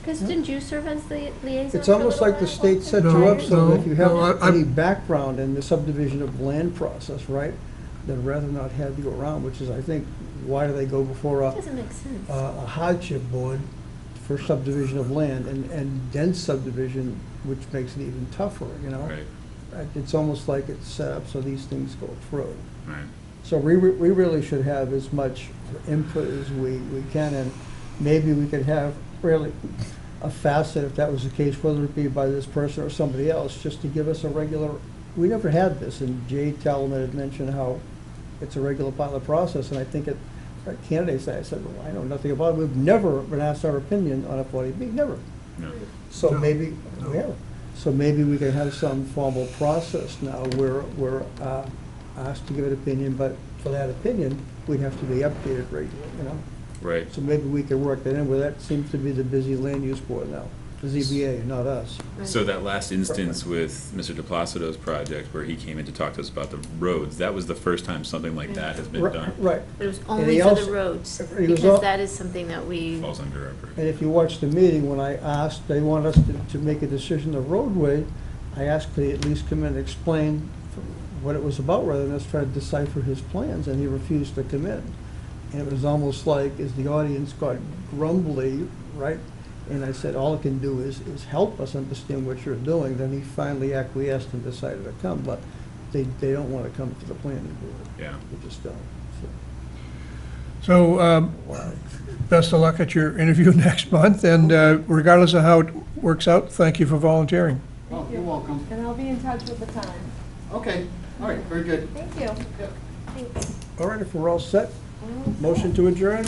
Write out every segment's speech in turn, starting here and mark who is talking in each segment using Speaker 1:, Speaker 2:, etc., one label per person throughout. Speaker 1: Because didn't you serve as the liaison?
Speaker 2: It's
Speaker 1: for a
Speaker 2: almost
Speaker 1: little
Speaker 2: like the
Speaker 1: while?
Speaker 2: state set you
Speaker 1: No,
Speaker 2: up so that if you
Speaker 3: no,
Speaker 2: have
Speaker 3: I- I'm-
Speaker 2: any background in the subdivision of land process, right, then rather not have you around, which is, I think, why do they go before a
Speaker 1: Doesn't make sense.
Speaker 2: a hardship board for subdivision of land and, and dense subdivision, which makes it even tougher, you know?
Speaker 4: Right,
Speaker 2: Uh, It's almost like it's set up so these things go through.
Speaker 4: right.
Speaker 2: So we, re- we really should have as much input as we, we can, and maybe we could have really a facet, if that was the case, whether it be by this person or somebody else, just to give us a regular, we never had this, and Jade Talman had mentioned how it's a regular part of the process, and I think it, our candidates, I said, well, I know nothing about it, we've never been asked our opinion on a forty B, never.
Speaker 4: No,
Speaker 2: So
Speaker 3: No,
Speaker 2: maybe,
Speaker 3: no.
Speaker 2: yeah, so maybe we could have some formal process now where we're uh, asked to give an opinion, but for that opinion, we'd have to be updated regularly, you know?
Speaker 4: right.
Speaker 2: So maybe we could work that in, where that seems to be the busy land use board now, the ZBA, not us.
Speaker 4: So that last instance with Mr. DePlacido's project where he came in to talk to us about the roads, that was the first time something like that has been
Speaker 2: Ri-
Speaker 4: done.
Speaker 2: Right,
Speaker 1: But it was
Speaker 2: he
Speaker 1: only for
Speaker 2: also-
Speaker 1: the roads,
Speaker 2: he was al-
Speaker 1: because that is something that we,
Speaker 4: Falls under our
Speaker 2: and
Speaker 4: purview.
Speaker 2: if you watch the meeting, when I asked, they want us to, to make a decision of roadway, I asked could he at least come in and explain what it was about, rather than us try to decipher his plans, and he refused to come in. And it was almost like, as the audience got grumbly, right? And I said, all it can do is, is help us understand what you're doing, then he finally acquiesced and decided to come, but they, they don't wanna come to the planning board,
Speaker 4: Yeah.
Speaker 2: they just don't, so,
Speaker 3: So um,
Speaker 2: wow.
Speaker 3: best of luck at your interview next month, and uh, regardless of how it works out, thank you for volunteering.
Speaker 5: Oh, you're welcome.
Speaker 6: And I'll be in touch with the time.
Speaker 5: Okay, all right, very good.
Speaker 6: Thank you.
Speaker 1: thanks.
Speaker 2: All right, if we're all set, motion to adjourn,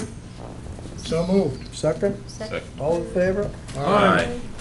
Speaker 3: So moved.
Speaker 2: second?
Speaker 1: Second.
Speaker 2: All in favor?
Speaker 4: All right.